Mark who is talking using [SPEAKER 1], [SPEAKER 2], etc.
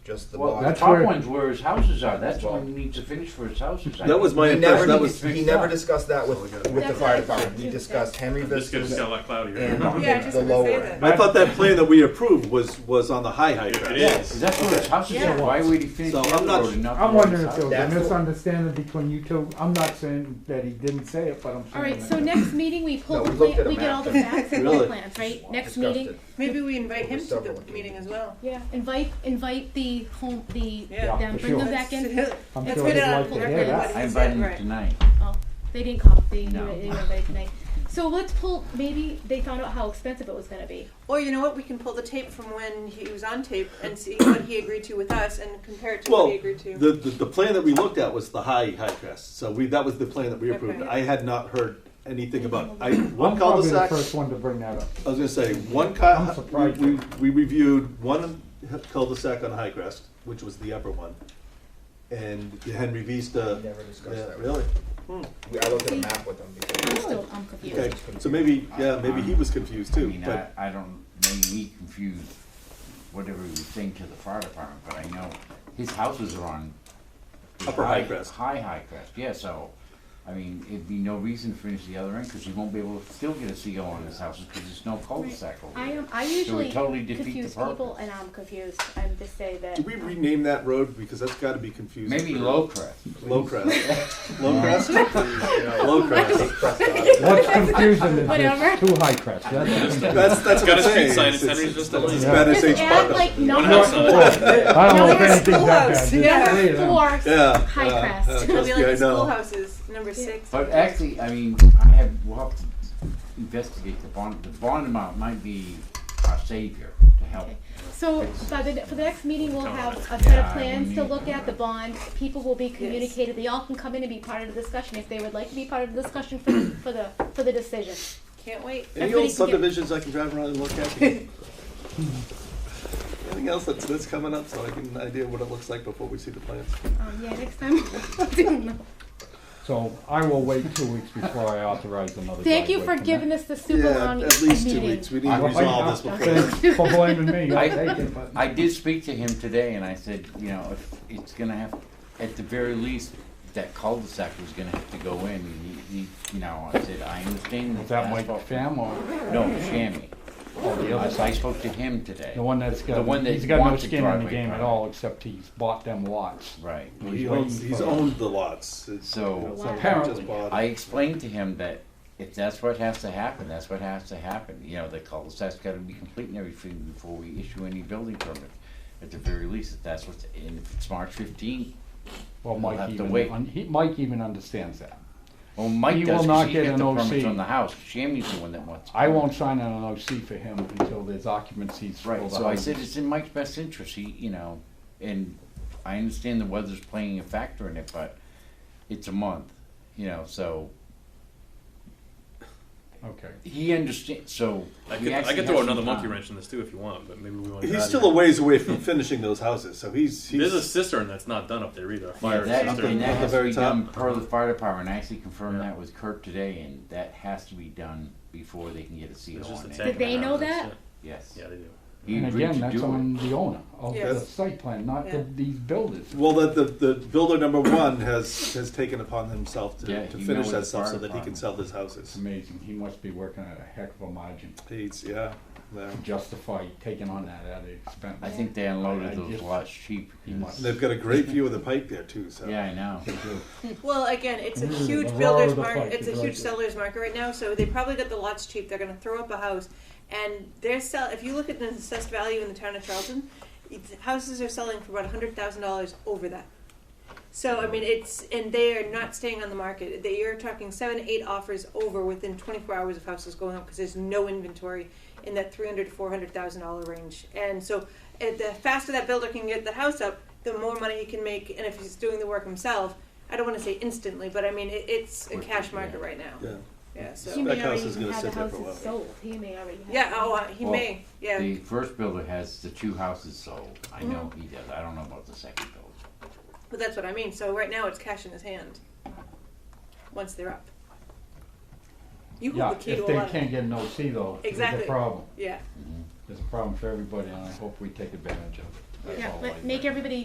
[SPEAKER 1] Just the
[SPEAKER 2] Well,
[SPEAKER 1] box.
[SPEAKER 2] the
[SPEAKER 3] that's
[SPEAKER 2] top
[SPEAKER 3] where-
[SPEAKER 2] one's where his houses are. That's
[SPEAKER 1] Well-
[SPEAKER 2] what he needs to finish for his houses. I
[SPEAKER 4] That was
[SPEAKER 2] think.
[SPEAKER 4] my
[SPEAKER 1] He never,
[SPEAKER 4] impression. That
[SPEAKER 1] he,
[SPEAKER 4] was
[SPEAKER 1] he
[SPEAKER 2] fixed
[SPEAKER 1] never
[SPEAKER 2] up.
[SPEAKER 1] discussed that with, with the
[SPEAKER 5] That's
[SPEAKER 1] fire
[SPEAKER 5] what I thought
[SPEAKER 1] department. We
[SPEAKER 5] too.
[SPEAKER 1] discussed Henry
[SPEAKER 6] I'm just gonna
[SPEAKER 1] Vistas
[SPEAKER 6] sell that cloud here.
[SPEAKER 1] and
[SPEAKER 5] Yeah, I
[SPEAKER 1] the,
[SPEAKER 5] was just
[SPEAKER 1] the
[SPEAKER 5] gonna say
[SPEAKER 1] lower.
[SPEAKER 5] that.
[SPEAKER 1] end.
[SPEAKER 4] I thought that plan that we approved was was on the high high
[SPEAKER 6] It
[SPEAKER 4] ground.
[SPEAKER 6] is.
[SPEAKER 2] That's where his houses
[SPEAKER 5] Yeah.
[SPEAKER 2] are. Why would he finish
[SPEAKER 4] So
[SPEAKER 2] the
[SPEAKER 4] I'm
[SPEAKER 2] other
[SPEAKER 4] not-
[SPEAKER 2] road and not?
[SPEAKER 3] I'm
[SPEAKER 2] the other
[SPEAKER 3] wondering if there was a
[SPEAKER 1] That's what-
[SPEAKER 3] misunderstanding between you two. I'm not saying that he didn't say it, but I'm saying.
[SPEAKER 7] All right,
[SPEAKER 3] that-
[SPEAKER 7] so next meeting, we pull
[SPEAKER 1] No,
[SPEAKER 7] the
[SPEAKER 1] we looked at
[SPEAKER 7] plan,
[SPEAKER 1] a
[SPEAKER 7] we get
[SPEAKER 1] map.
[SPEAKER 7] all the facts and
[SPEAKER 4] Really?
[SPEAKER 7] the plans, right? Next
[SPEAKER 1] Discussed
[SPEAKER 7] meeting,
[SPEAKER 1] it.
[SPEAKER 5] Maybe we invite him to
[SPEAKER 1] Several
[SPEAKER 5] the
[SPEAKER 1] occasions.
[SPEAKER 5] meeting as well.
[SPEAKER 7] yeah, invite, invite the home, the,
[SPEAKER 5] Yeah.
[SPEAKER 7] them,
[SPEAKER 3] for
[SPEAKER 7] bring them
[SPEAKER 3] sure.
[SPEAKER 7] back in.
[SPEAKER 3] I'm
[SPEAKER 5] Let's
[SPEAKER 3] sure
[SPEAKER 5] put
[SPEAKER 3] he'd
[SPEAKER 5] it on
[SPEAKER 3] like to hear
[SPEAKER 5] record
[SPEAKER 3] that.
[SPEAKER 5] what he
[SPEAKER 2] I
[SPEAKER 5] said,
[SPEAKER 2] invited him
[SPEAKER 5] right.
[SPEAKER 2] tonight.
[SPEAKER 7] Oh, they didn't call, they,
[SPEAKER 2] No.
[SPEAKER 7] they didn't invite tonight. So let's pull, maybe they found out how expensive it was gonna be.
[SPEAKER 5] Or you know what? We can pull the tape from when he was on tape and see what he agreed to with us and compare it to
[SPEAKER 4] Well,
[SPEAKER 5] what he agreed to.
[SPEAKER 4] the, the the plan that we looked at was the high high crest. So we that was the plan that we approved.
[SPEAKER 5] Okay.
[SPEAKER 4] I had not heard anything about I
[SPEAKER 3] I'm
[SPEAKER 4] one
[SPEAKER 3] probably the
[SPEAKER 4] cul-de-sac.
[SPEAKER 3] first one to bring that up.
[SPEAKER 4] I was gonna say, one
[SPEAKER 3] I'm
[SPEAKER 4] cu-
[SPEAKER 3] surprised.
[SPEAKER 4] we, we reviewed one cul-de-sac on High Crest, which was the upper one, and the Henry Vista.
[SPEAKER 1] We never discussed
[SPEAKER 4] Yeah,
[SPEAKER 1] that.
[SPEAKER 4] really?
[SPEAKER 1] We, I looked at a map with them
[SPEAKER 7] I'm
[SPEAKER 1] before.
[SPEAKER 7] still, I'm
[SPEAKER 4] Okay,
[SPEAKER 7] confused.
[SPEAKER 4] so maybe, yeah, maybe he was confused
[SPEAKER 2] I
[SPEAKER 4] too,
[SPEAKER 2] mean, I,
[SPEAKER 4] but,
[SPEAKER 2] I don't, maybe he confused whatever he was saying to the fire department, but I know his houses are on. the
[SPEAKER 4] Upper High Crest.
[SPEAKER 2] High, high crest, yeah, so, I mean, it'd be no reason to finish the other end, cause he won't be able to still get a CO on his houses, cause there's no cul-de-sac over
[SPEAKER 7] I
[SPEAKER 2] there.
[SPEAKER 7] am, I usually
[SPEAKER 2] totally defeat the
[SPEAKER 7] confuse people
[SPEAKER 2] purpose.
[SPEAKER 7] and I'm confused. I'm just say that.
[SPEAKER 4] did we rename that road, because that's gotta be confusing.
[SPEAKER 2] Maybe
[SPEAKER 4] for-
[SPEAKER 2] low crest.
[SPEAKER 4] Low Crest, Low Crest, Low
[SPEAKER 1] Take
[SPEAKER 4] Crest,
[SPEAKER 1] Crest out of it.
[SPEAKER 3] What's confusing is
[SPEAKER 7] Whatever.
[SPEAKER 3] it's too high crest. That's,
[SPEAKER 4] that's, that's what
[SPEAKER 6] Got a
[SPEAKER 4] I'm
[SPEAKER 6] street
[SPEAKER 4] saying.
[SPEAKER 6] sign,
[SPEAKER 4] It's-
[SPEAKER 6] it's Henry's
[SPEAKER 4] it's-
[SPEAKER 6] Vista
[SPEAKER 4] it's
[SPEAKER 6] Lane.
[SPEAKER 3] Yeah.
[SPEAKER 4] Bad
[SPEAKER 7] Just
[SPEAKER 4] SH
[SPEAKER 7] add
[SPEAKER 4] Buckle.
[SPEAKER 7] like
[SPEAKER 6] One
[SPEAKER 7] number
[SPEAKER 6] house
[SPEAKER 7] four,
[SPEAKER 6] on it.
[SPEAKER 3] I don't know if
[SPEAKER 7] Number
[SPEAKER 3] anything's that bad. Just
[SPEAKER 5] schools, yeah.
[SPEAKER 3] three of them.
[SPEAKER 4] Yeah.
[SPEAKER 7] High
[SPEAKER 4] yeah,
[SPEAKER 7] crest.
[SPEAKER 4] yeah,
[SPEAKER 7] It'll
[SPEAKER 5] It'll be
[SPEAKER 4] trust
[SPEAKER 5] like
[SPEAKER 4] me, I
[SPEAKER 5] the
[SPEAKER 4] know.
[SPEAKER 5] schoolhouses, number six.
[SPEAKER 2] But actually, I mean, I have, we'll have to investigate the bond, the bond amount might be our savior to help.
[SPEAKER 7] So, by the, for the next meeting, we'll have a set
[SPEAKER 2] Yeah,
[SPEAKER 7] of
[SPEAKER 2] we
[SPEAKER 7] plans to
[SPEAKER 2] need-
[SPEAKER 7] look at, the bond, people will be communicated, they all can come in and be part of the discussion, if they would like to be part of the discussion for, the- for the, for the decision.
[SPEAKER 5] Can't wait.
[SPEAKER 4] Any old
[SPEAKER 7] Everybody can get-
[SPEAKER 4] subdivisions I can drive around and look at? Anything else that's, that's coming up, so I get an idea what it looks like before we see the plans?
[SPEAKER 7] Um, yeah, next time, I'll do them.
[SPEAKER 3] So I will wait two weeks before I authorize another.
[SPEAKER 7] Thank you for
[SPEAKER 3] driveway
[SPEAKER 7] giving
[SPEAKER 3] permit.
[SPEAKER 7] us the super long
[SPEAKER 4] Yeah,
[SPEAKER 7] meeting.
[SPEAKER 4] at least two weeks, we need
[SPEAKER 3] I
[SPEAKER 4] to
[SPEAKER 3] will-
[SPEAKER 4] resolve this before.
[SPEAKER 3] Thanks For blaming me, I'll take it, but.
[SPEAKER 2] I did speak to him today and I said, you know, if it's gonna have, at the very least, that cul-de-sac was gonna have to go in. And he, he, you know, I said, I understand that.
[SPEAKER 3] Is that Mike
[SPEAKER 2] asphalt-
[SPEAKER 3] Pham or
[SPEAKER 2] No, Shammy.
[SPEAKER 3] the
[SPEAKER 2] I
[SPEAKER 3] other
[SPEAKER 2] s- I spoke to him today.
[SPEAKER 3] The one that's got,
[SPEAKER 2] The one that
[SPEAKER 3] he's got no
[SPEAKER 2] wants a
[SPEAKER 3] skin in the
[SPEAKER 2] driveway
[SPEAKER 3] game at
[SPEAKER 2] permit.
[SPEAKER 3] all, except he's bought them lots.
[SPEAKER 2] Right.
[SPEAKER 4] He owns, he's owned the lots. It's-
[SPEAKER 2] So
[SPEAKER 4] it's not like he
[SPEAKER 2] apparently,
[SPEAKER 4] just bought
[SPEAKER 2] I
[SPEAKER 4] it.
[SPEAKER 2] explained to him that if that's what has to happen, that's what has to happen. You know, the cul-de-sac's gotta be complete and everything before we issue any building permit. At the very least, if that's what's, and if it's March fifteenth,
[SPEAKER 3] Well,
[SPEAKER 2] We'll have
[SPEAKER 3] Mike
[SPEAKER 2] to
[SPEAKER 3] even,
[SPEAKER 2] wait.
[SPEAKER 3] un- he, Mike even understands that.
[SPEAKER 2] well, Mike
[SPEAKER 3] He
[SPEAKER 2] does,
[SPEAKER 3] will not
[SPEAKER 2] cause he
[SPEAKER 3] get
[SPEAKER 2] got
[SPEAKER 3] an
[SPEAKER 2] the
[SPEAKER 3] OC.
[SPEAKER 2] permits on the house, Shammy's the one that wants. it.
[SPEAKER 3] I won't sign an OC for him until there's occupancies for the
[SPEAKER 2] Right,
[SPEAKER 3] house.
[SPEAKER 2] so I said it's in Mike's best interest, he, you know, and I understand the weather's playing a factor in it, but it's a month, you know, so
[SPEAKER 3] Okay.
[SPEAKER 2] he understands, so.
[SPEAKER 6] I
[SPEAKER 2] we
[SPEAKER 6] could, I
[SPEAKER 2] actually
[SPEAKER 6] could
[SPEAKER 2] have
[SPEAKER 6] throw
[SPEAKER 2] some
[SPEAKER 6] another monkey
[SPEAKER 2] time.
[SPEAKER 6] wrench in this too if you want, but maybe we want.
[SPEAKER 4] He's still a ways away from finishing those houses, so he's,
[SPEAKER 6] There's a
[SPEAKER 4] he's,
[SPEAKER 6] cistern that's not done up there either. A
[SPEAKER 2] Yeah,
[SPEAKER 6] fire
[SPEAKER 2] that,
[SPEAKER 6] cistern.
[SPEAKER 2] and that
[SPEAKER 4] At the
[SPEAKER 2] has to
[SPEAKER 4] very
[SPEAKER 2] be
[SPEAKER 4] top.
[SPEAKER 2] done per the fire department, I actually confirmed
[SPEAKER 6] Yeah.
[SPEAKER 2] that with Kurt today, and that has to be done before they can get a CO
[SPEAKER 6] It's just a
[SPEAKER 2] on
[SPEAKER 6] tank
[SPEAKER 2] it,
[SPEAKER 7] Did they
[SPEAKER 6] in the
[SPEAKER 7] know
[SPEAKER 6] ground. It's-
[SPEAKER 7] that?
[SPEAKER 2] yes.
[SPEAKER 6] Yeah, Yeah, they do.
[SPEAKER 2] He
[SPEAKER 3] And
[SPEAKER 2] agreed
[SPEAKER 3] again,
[SPEAKER 2] to
[SPEAKER 3] that's
[SPEAKER 2] do it.
[SPEAKER 3] on the owner of the
[SPEAKER 5] Yes.
[SPEAKER 3] site plan, not
[SPEAKER 5] Yeah.
[SPEAKER 3] the, these builders.
[SPEAKER 4] well, that the, the builder number one has, has taken upon himself
[SPEAKER 2] Yeah,
[SPEAKER 4] to, to
[SPEAKER 2] he
[SPEAKER 4] finish
[SPEAKER 2] knows
[SPEAKER 4] that
[SPEAKER 2] the
[SPEAKER 4] stuff so
[SPEAKER 2] fire
[SPEAKER 4] that he can
[SPEAKER 2] department.
[SPEAKER 4] sell his
[SPEAKER 3] It's
[SPEAKER 4] houses.
[SPEAKER 3] amazing, he must be working at a heck of a margin
[SPEAKER 4] He's, yeah, yeah.
[SPEAKER 3] to justify taking on that at the expense.
[SPEAKER 2] I think they unloaded
[SPEAKER 3] I
[SPEAKER 2] those
[SPEAKER 3] just-
[SPEAKER 2] lots cheap.
[SPEAKER 3] He
[SPEAKER 2] because-
[SPEAKER 3] must.
[SPEAKER 4] They've got a great view of the pike there too, so.
[SPEAKER 2] Yeah, I know.
[SPEAKER 5] Well, again, it's a
[SPEAKER 3] Mm,
[SPEAKER 5] huge
[SPEAKER 3] the roar
[SPEAKER 5] builder's
[SPEAKER 3] of the
[SPEAKER 5] market.
[SPEAKER 3] fight
[SPEAKER 5] It's a
[SPEAKER 3] is
[SPEAKER 5] huge
[SPEAKER 3] right there.
[SPEAKER 5] seller's market right now. So they probably got the lots cheap. They're going to throw up a house, and they're sell. If you look at the assessed value in the town of Charlton, it's, houses are selling for about hundred thousand dollars over that. So I mean, it's and they are not staying on the market. They, you're talking seven, eight offers over within 24 hours of houses going up because there's no inventory in that 300 to 400 thousand dollar range. And so, uh, the faster that builder can get the house up, the more money he can make. And if he's doing the work himself, I don't want to say instantly, but I mean, it, it's a
[SPEAKER 2] Quick,
[SPEAKER 5] cash
[SPEAKER 2] yeah.
[SPEAKER 5] market right now.
[SPEAKER 4] Yeah.
[SPEAKER 5] Yeah.
[SPEAKER 7] He
[SPEAKER 5] So.
[SPEAKER 4] That
[SPEAKER 7] may
[SPEAKER 4] house
[SPEAKER 7] already
[SPEAKER 4] is gonna
[SPEAKER 7] have the
[SPEAKER 4] sit there for a
[SPEAKER 7] houses
[SPEAKER 4] while.
[SPEAKER 7] sold, he may already have.
[SPEAKER 5] Yeah. Oh, uh, he
[SPEAKER 2] Well,
[SPEAKER 5] may. Yeah.
[SPEAKER 2] The first builder has the two houses sold. I know he does. I don't know about the second builder.
[SPEAKER 5] But that's what I mean. So right now, it's cash in his hand. Once they're up. You
[SPEAKER 3] Yeah,
[SPEAKER 5] hold the key to
[SPEAKER 3] if
[SPEAKER 5] a
[SPEAKER 3] they
[SPEAKER 5] lot. of-
[SPEAKER 3] can't get an OC though, there's a
[SPEAKER 5] Exactly.
[SPEAKER 3] problem.
[SPEAKER 5] yeah.
[SPEAKER 3] There's a problem for everybody and I hope we take advantage of it.
[SPEAKER 4] Oh
[SPEAKER 7] yeah, let- make everybody